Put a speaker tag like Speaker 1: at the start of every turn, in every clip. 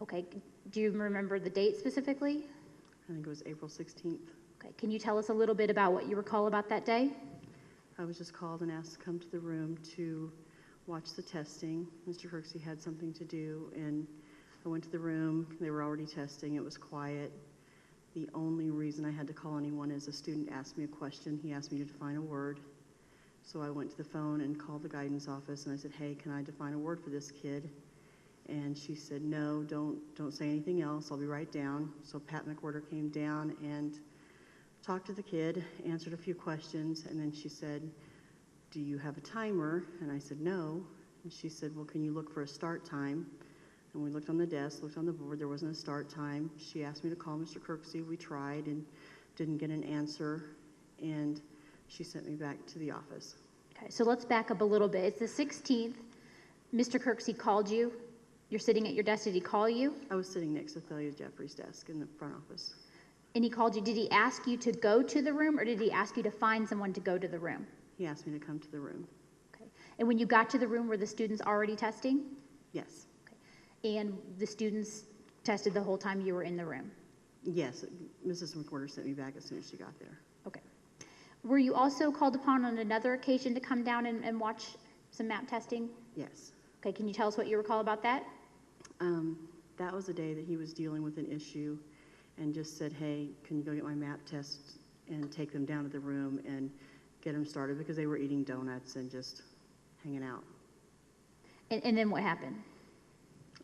Speaker 1: Okay, do you remember the date specifically?
Speaker 2: I think it was April 16th.
Speaker 1: Okay, can you tell us a little bit about what you recall about that day?
Speaker 2: I was just called and asked to come to the room to watch the testing. Mr. Herxey had something to do, and I went to the room. They were already testing. It was quiet. The only reason I had to call anyone is a student asked me a question. He asked me to define a word. So I went to the phone and called the guidance office, and I said, "Hey, can I define a word for this kid?" And she said, "No, don't don't say anything else. I'll be right down." So Pat McWhorter came down and talked to the kid, answered a few questions, and then she said, Do you have a timer? And I said, No. And she said, Well, can you look for a start time? And we looked on the desk, looked on the board, there wasn't a start time. She asked me to call Mr. Kirksey. We tried and didn't get an answer. And she sent me back to the office.
Speaker 1: Okay, so let's back up a little bit. It's the 16th. Mr. Kirksey called you. You're sitting at your desk. Did he call you?
Speaker 2: I was sitting next to Thalia Jeffrey's desk in the front office.
Speaker 1: And he called you. Did he ask you to go to the room or did he ask you to find someone to go to the room?
Speaker 2: He asked me to come to the room.
Speaker 1: Okay. And when you got to the room, were the students already testing?
Speaker 2: Yes.
Speaker 1: Okay. And the students tested the whole time you were in the room?
Speaker 2: Yes, Mrs. McWhorter sent me back as soon as she got there.
Speaker 1: Okay. Were you also called upon on another occasion to come down and, and watch some map testing?
Speaker 2: Yes.
Speaker 1: Okay, can you tell us what you recall about that?
Speaker 2: Um, that was a day that he was dealing with an issue and just said, hey, can you go get my map test and take them down to the room and get them started because they were eating donuts and just hanging out.
Speaker 1: And, and then what happened?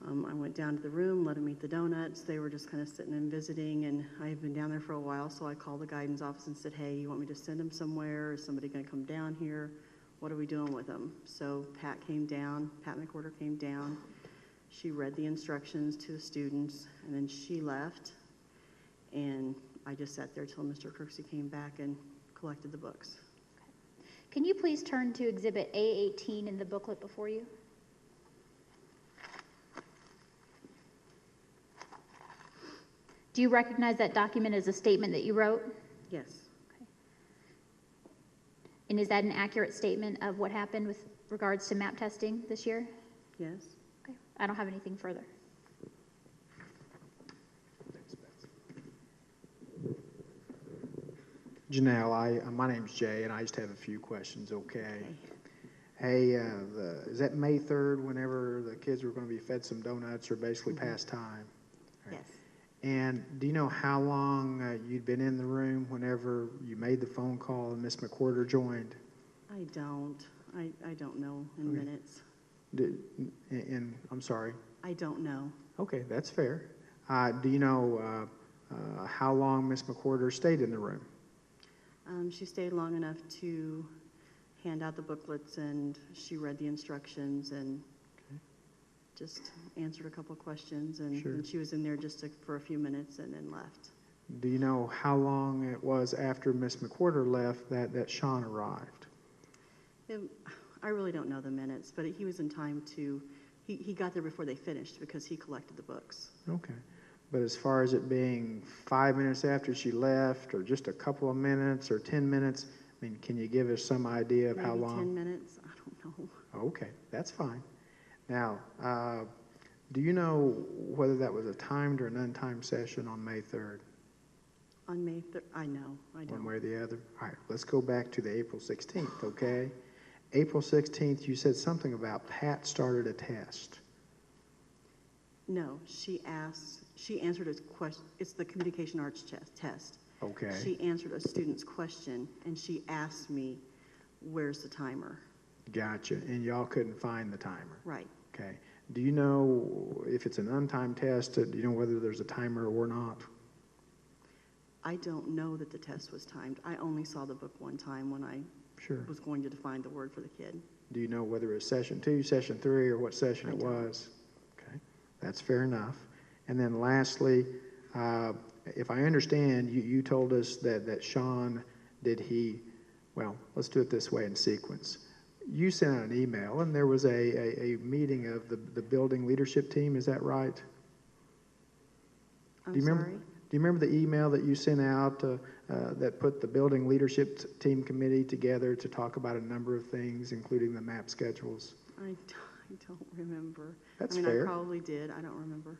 Speaker 2: Um, I went down to the room, let them eat the donuts. They were just kind of sitting and visiting, and I had been down there for a while, so I called the guidance office and said, "Hey, you want me to send them somewhere? Is somebody going to come down here? What are we doing with them?" So Pat came down. Pat McWhorter came down. She read the instructions to the students, and then she left. And I just sat there till Mr. Kirksey came back and collected the books.
Speaker 1: Can you please turn to Exhibit A18 in the booklet before you? Do you recognize that document as a statement that you wrote?
Speaker 2: Yes,
Speaker 1: And is that an accurate statement of what happened with regards to map testing this year?
Speaker 2: yes.
Speaker 1: Okay, I don't have anything further.
Speaker 3: Janelle, I, uh, my name's Jay, and I just have a few questions, okay? Hey, uh, the, is that May third, whenever the kids were gonna be fed some donuts or basically past time?
Speaker 2: Yes.
Speaker 3: And do you know how long uh, you'd been in the room whenever you made the phone call and Miss McWhorter joined?
Speaker 2: I don't. I, I don't know in
Speaker 3: Okay.
Speaker 2: minutes.
Speaker 3: Did, and, and, I'm sorry,
Speaker 2: I don't know.
Speaker 3: okay, that's fair. Uh, do you know, uh, uh, how long Miss McWhorter stayed in the room?
Speaker 2: Um, she stayed long enough to hand out the booklets and she read the instructions and
Speaker 3: Okay.
Speaker 2: just answered a couple questions and,
Speaker 3: Sure.
Speaker 2: and she was in there just to, for a few minutes and then left.
Speaker 3: Do you know how long it was after Miss McWhorter left that, that Sean arrived?
Speaker 2: Um, I really don't know the minutes, but he was in time to, he, he got there before they finished because he collected the books.
Speaker 3: Okay. But as far as it being five minutes after she left, or just a couple of minutes, or 10 minutes, I mean, can you give us some idea of how
Speaker 2: Maybe
Speaker 3: long?
Speaker 2: 10 minutes? I don't know.
Speaker 3: Okay, that's fine. Now, uh, do you know whether that was a timed or an untimed session on May 3rd,
Speaker 2: On May 3rd? I know. I
Speaker 3: one
Speaker 2: don't.
Speaker 3: way or the other? All right, let's go back to the April 16th, okay? April 16th, you said something about Pat started a test.
Speaker 2: No, she asked, she answered a question, it's the communication arts chest, test.
Speaker 3: Okay.
Speaker 2: She answered a student's question and she asked me, where's the timer?
Speaker 3: Gotcha. And y'all couldn't find the timer.
Speaker 2: Right.
Speaker 3: Okay. Do you know if it's an untimed test? uh, Do you know whether there's a timer or not?
Speaker 2: I don't know that the test was timed. I only saw the book one time when I
Speaker 3: Sure.
Speaker 2: was going to define the word for the kid.
Speaker 3: Do you know whether it was session two, session three, or what session
Speaker 2: I
Speaker 3: it
Speaker 2: don't.
Speaker 3: was? Okay. That's fair enough. And then lastly, uh, if I understand, you, you told us that, that Sean, did he, well, let's do it this way in sequence. You sent out an email and there was a, a, a meeting of the, the building leadership team, is that right?
Speaker 2: I'm
Speaker 3: Do you remember-
Speaker 2: sorry.
Speaker 3: Do you remember the email that you sent out uh, uh, that put the building leadership t- team committee together to talk about a number of things, including the map schedules?
Speaker 2: I, d- I don't remember.
Speaker 3: That's
Speaker 2: I mean, I
Speaker 3: fair.
Speaker 2: probably did. I don't remember.